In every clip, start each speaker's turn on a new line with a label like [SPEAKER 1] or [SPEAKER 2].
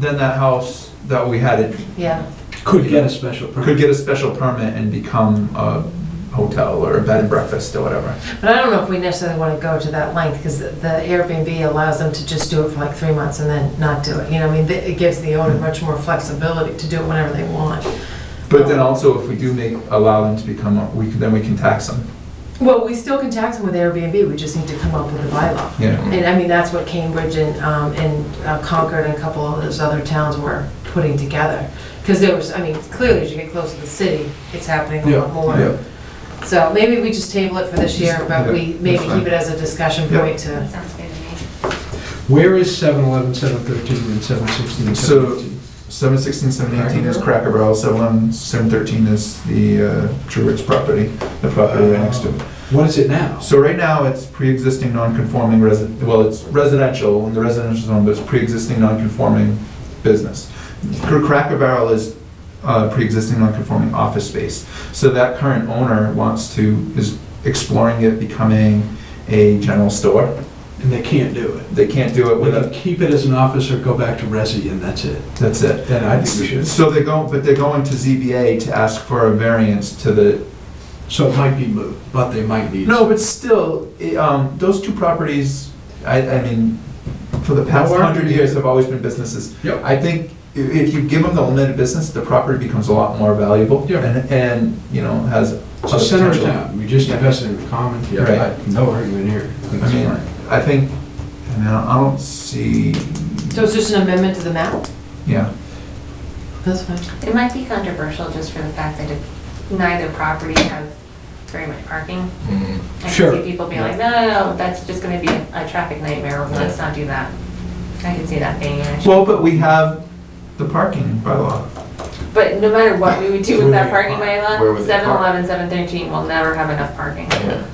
[SPEAKER 1] then that house that we had it
[SPEAKER 2] yeah.
[SPEAKER 3] Could get a special permit.
[SPEAKER 1] could get a special permit and become a hotel or a bed and breakfast or whatever.
[SPEAKER 2] But I don't know if we necessarily want to go to that length, because the Airbnb allows them to just do it for like three months and then not do it, you know, I mean, th- it gives the owner much more flexibility to do it whenever they want.
[SPEAKER 1] But then also, if we do make, allow them to become, a- we, can- then we can tax them,
[SPEAKER 2] Well, we still can tax them with Airbnb, we just need to come up with a bylaw.
[SPEAKER 1] yeah.
[SPEAKER 2] And I mean, that's what Cambridge and, um, and uh, Concord and a couple of those other towns were putting together. Because there was, I mean, clearly as you get closer to the city, it's happening a lot more.
[SPEAKER 1] Yeah.
[SPEAKER 2] So maybe we just table it for this year, but we
[SPEAKER 1] Yeah,
[SPEAKER 2] maybe
[SPEAKER 1] that's fine.
[SPEAKER 2] keep it as a discussion
[SPEAKER 1] Yeah.
[SPEAKER 2] point to,
[SPEAKER 4] Sounds good to me.
[SPEAKER 3] Where is 711, 713, and 716,
[SPEAKER 1] So-
[SPEAKER 3] 718?
[SPEAKER 1] Seven sixteen, seven eighteen is Cracker Barrel, seven, seven thirteen is the uh, True Roots property, the property right next to it.
[SPEAKER 3] What is it now?
[SPEAKER 1] So right now, it's pre-existing non-conforming resi, well, it's residential, in the residential zone, but it's pre-existing non-conforming business. Cr- Cracker Barrel is uh, pre-existing non-conforming office space. So that current owner wants to, is exploring it becoming a general store.
[SPEAKER 3] And they can't do it.
[SPEAKER 1] They can't do it
[SPEAKER 3] We
[SPEAKER 1] with
[SPEAKER 3] can
[SPEAKER 1] a,
[SPEAKER 3] keep it as an office or go back to resi, and that's it.
[SPEAKER 1] that's it.
[SPEAKER 3] Then I think we should.
[SPEAKER 1] So they're going, but they're going to ZBA to ask for a variance to the,
[SPEAKER 3] So it might be moved, but they might need.
[SPEAKER 1] no, but still, i- um, those two properties, I, I mean, for the past
[SPEAKER 3] Well, we're-
[SPEAKER 1] hundred years have always been businesses.
[SPEAKER 3] Yep.
[SPEAKER 1] I think i- if you give them the limited business, the property becomes a lot more valuable.
[SPEAKER 3] Yeah.
[SPEAKER 1] And, and, you know, has.
[SPEAKER 3] It's a
[SPEAKER 1] other
[SPEAKER 3] center of
[SPEAKER 1] potential.
[SPEAKER 3] town. We just invested in the common. Yeah,
[SPEAKER 1] Right.
[SPEAKER 3] I- No argument here.
[SPEAKER 1] I mean, I think, I mean, I don't see,
[SPEAKER 2] so it's just an amendment to the map?
[SPEAKER 1] yeah,
[SPEAKER 2] That's fine.
[SPEAKER 4] It might be controversial just for the fact that if neither property has very much parking. I can
[SPEAKER 3] Sure.
[SPEAKER 4] see people being like, no, no, no, that's just gonna be a a traffic nightmare, let's not do that. I can see that being an issue.
[SPEAKER 1] well, but we have the parking bylaw.
[SPEAKER 4] But no matter what we would do with that
[SPEAKER 5] Where would
[SPEAKER 4] parking
[SPEAKER 5] they park? Where would
[SPEAKER 4] bylaw,
[SPEAKER 5] they park?
[SPEAKER 4] seven eleven, seven thirteen will never have enough parking.
[SPEAKER 5] Yeah.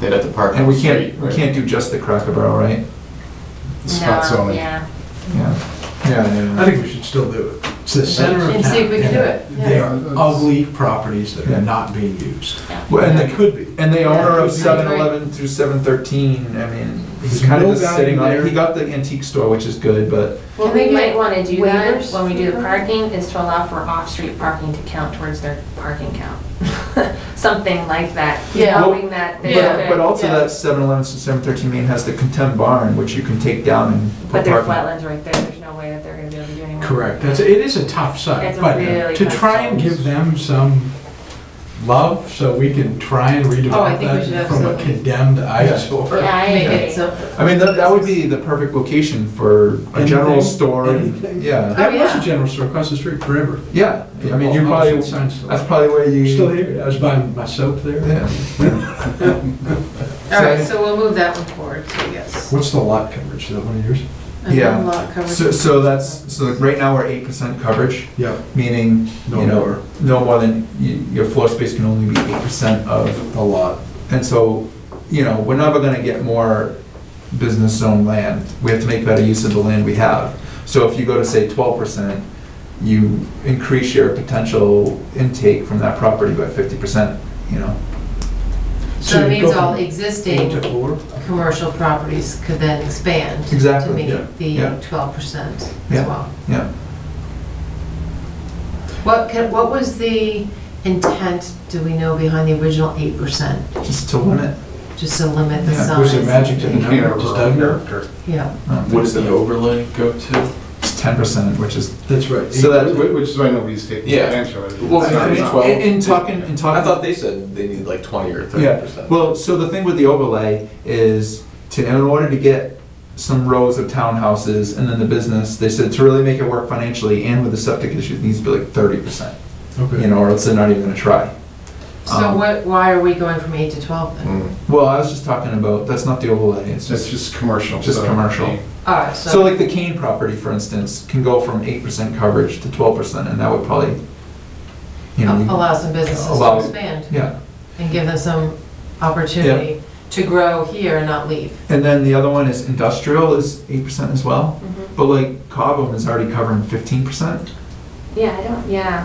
[SPEAKER 5] They'd have to park.
[SPEAKER 1] And
[SPEAKER 5] on
[SPEAKER 1] we
[SPEAKER 5] the
[SPEAKER 1] can't,
[SPEAKER 5] street,
[SPEAKER 1] we
[SPEAKER 5] right?
[SPEAKER 1] can't do just the Cracker Barrel, right?
[SPEAKER 5] Spots
[SPEAKER 4] No,
[SPEAKER 5] only.
[SPEAKER 4] Yeah.
[SPEAKER 1] Yeah, yeah, yeah.
[SPEAKER 3] I think we should still do it. It's the center of town.
[SPEAKER 2] And see if we can do it.
[SPEAKER 3] They
[SPEAKER 2] Yeah.
[SPEAKER 3] are ugly properties that
[SPEAKER 1] Yeah.
[SPEAKER 3] are not being used.
[SPEAKER 1] Well,
[SPEAKER 3] And
[SPEAKER 1] and
[SPEAKER 3] they
[SPEAKER 1] the,
[SPEAKER 3] could be.
[SPEAKER 1] and the owner of
[SPEAKER 2] Yeah,
[SPEAKER 1] seven
[SPEAKER 2] right.
[SPEAKER 1] eleven through seven thirteen, I mean, he's
[SPEAKER 3] There's
[SPEAKER 1] kind
[SPEAKER 3] no
[SPEAKER 1] of just
[SPEAKER 3] value
[SPEAKER 1] sitting on it.
[SPEAKER 3] there.
[SPEAKER 1] He got the antique store, which is good, but
[SPEAKER 4] What
[SPEAKER 2] Can they
[SPEAKER 4] we might
[SPEAKER 2] get
[SPEAKER 4] wanna do that,
[SPEAKER 2] waivers
[SPEAKER 4] when we do the
[SPEAKER 2] for-
[SPEAKER 4] parking, is to allow for off-street parking to count towards their parking count. Something like that,
[SPEAKER 2] Yeah.
[SPEAKER 4] knowing
[SPEAKER 1] but,
[SPEAKER 4] that there's a-
[SPEAKER 2] Yeah.
[SPEAKER 1] but also
[SPEAKER 2] Yeah.
[SPEAKER 1] that seven eleven to seven thirteen main has the contempt barn, which you can take down and put
[SPEAKER 4] But there's
[SPEAKER 1] parking.
[SPEAKER 4] wetlands right there, there's no way that they're gonna be able to do anything.
[SPEAKER 3] Correct. That's, it is a tough site,
[SPEAKER 4] It's a
[SPEAKER 3] but
[SPEAKER 4] really
[SPEAKER 3] to
[SPEAKER 4] tough
[SPEAKER 3] try and
[SPEAKER 4] site.
[SPEAKER 3] give them some love so we can try and
[SPEAKER 2] Oh, I
[SPEAKER 3] redevelop
[SPEAKER 2] think we should
[SPEAKER 3] that from a
[SPEAKER 2] absolutely.
[SPEAKER 3] condemned
[SPEAKER 4] Yeah,
[SPEAKER 3] eyesore.
[SPEAKER 4] I
[SPEAKER 2] Make
[SPEAKER 4] agree.
[SPEAKER 2] it so,
[SPEAKER 1] I mean, that, that would be the perfect location for a general
[SPEAKER 3] Anything,
[SPEAKER 1] store,
[SPEAKER 3] anything.
[SPEAKER 1] yeah,
[SPEAKER 3] That was
[SPEAKER 2] yeah.
[SPEAKER 3] a general store across the street forever.
[SPEAKER 1] yeah, I mean, you
[SPEAKER 3] Well,
[SPEAKER 1] probably,
[SPEAKER 3] opposite sign still.
[SPEAKER 1] that's probably where you.
[SPEAKER 3] Still here. I was buying my soap there.
[SPEAKER 1] Yeah.
[SPEAKER 2] all right,
[SPEAKER 1] So-
[SPEAKER 2] so we'll move that one forward, so yes.
[SPEAKER 3] What's the lot coverage? Is that one of yours?
[SPEAKER 2] And
[SPEAKER 1] Yeah.
[SPEAKER 2] then lot coverage.
[SPEAKER 1] So, so that's, so right now we're eight percent coverage,
[SPEAKER 3] Yeah.
[SPEAKER 1] meaning,
[SPEAKER 3] No
[SPEAKER 1] you know,
[SPEAKER 3] more.
[SPEAKER 1] no more than, y- your floor space can only be eight percent of,
[SPEAKER 3] A lot.
[SPEAKER 1] and so, you know, we're never gonna get more business zone land. We have to make better use of the land we have. So if you go to say twelve percent, you increase your potential intake from that property by fifty percent, you know?
[SPEAKER 2] So that
[SPEAKER 3] you go
[SPEAKER 2] means all
[SPEAKER 3] from
[SPEAKER 2] existing
[SPEAKER 3] Eight to four.
[SPEAKER 2] commercial properties could then expand to
[SPEAKER 1] Exactly,
[SPEAKER 2] meet
[SPEAKER 3] yeah,
[SPEAKER 1] yeah.
[SPEAKER 2] the twelve percent as
[SPEAKER 1] Yeah,
[SPEAKER 2] well.
[SPEAKER 1] yeah.
[SPEAKER 2] What, can- what was the intent, do we know, behind the original eight percent?
[SPEAKER 1] Just to limit.
[SPEAKER 2] Just to limit the
[SPEAKER 1] Yeah,
[SPEAKER 2] size?
[SPEAKER 3] Was it magic to the number? Just doesn't-
[SPEAKER 2] Yeah,
[SPEAKER 5] What does the overlay go to?
[SPEAKER 1] It's um, ten percent, which is
[SPEAKER 3] That's right.
[SPEAKER 1] So that-
[SPEAKER 6] Wh- Which is why nobody's taking
[SPEAKER 5] Yeah.
[SPEAKER 6] advantage of it.
[SPEAKER 5] Well,
[SPEAKER 6] It's
[SPEAKER 5] I
[SPEAKER 6] not-
[SPEAKER 5] mean,
[SPEAKER 6] it's not-
[SPEAKER 5] Twelve.
[SPEAKER 1] In, in talking, in talking.
[SPEAKER 5] I thought they said they need like twenty or thirty
[SPEAKER 1] Yeah,
[SPEAKER 5] percent.
[SPEAKER 1] well, so the thing with the overlay is to, in order to get some rows of townhouses and then the business, they said to really make it work financially and with the septic issue, it needs to be like thirty percent, you
[SPEAKER 3] Okay.
[SPEAKER 1] know, or else they're not even gonna try.
[SPEAKER 2] so
[SPEAKER 1] Um,
[SPEAKER 2] what, why are we going from eight to twelve then?
[SPEAKER 5] Mm.
[SPEAKER 1] Well, I was just talking about, that's not the overlay, it's
[SPEAKER 6] It's
[SPEAKER 1] just,
[SPEAKER 6] just commercial.
[SPEAKER 1] Just
[SPEAKER 6] so-
[SPEAKER 1] commercial.
[SPEAKER 2] All right,
[SPEAKER 1] so
[SPEAKER 2] so,
[SPEAKER 1] like the Kane property, for instance, can go from eight percent coverage to twelve percent and that would probably, you know, you-
[SPEAKER 2] allow some businesses to
[SPEAKER 1] Allow-
[SPEAKER 2] expand
[SPEAKER 1] yeah.
[SPEAKER 2] and give them some opportunity to grow here and not leave.
[SPEAKER 1] And then the other one is industrial is eight percent as well,
[SPEAKER 4] Mhm.
[SPEAKER 1] but like Cobham is already covering fifteen percent.
[SPEAKER 4] Yeah, I don't, yeah.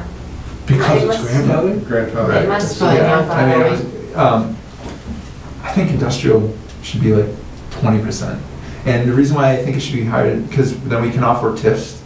[SPEAKER 3] Because
[SPEAKER 4] It
[SPEAKER 3] it's
[SPEAKER 4] must-
[SPEAKER 3] grandfathered?
[SPEAKER 6] Grandfather.
[SPEAKER 5] Right.
[SPEAKER 4] It must be
[SPEAKER 2] Probably
[SPEAKER 1] Yeah,
[SPEAKER 2] not
[SPEAKER 4] enough.
[SPEAKER 2] by
[SPEAKER 1] I mean, it
[SPEAKER 2] law.
[SPEAKER 1] was, um, I think industrial should be like twenty percent. And the reason why I think it should be higher, because then we can offer TIFs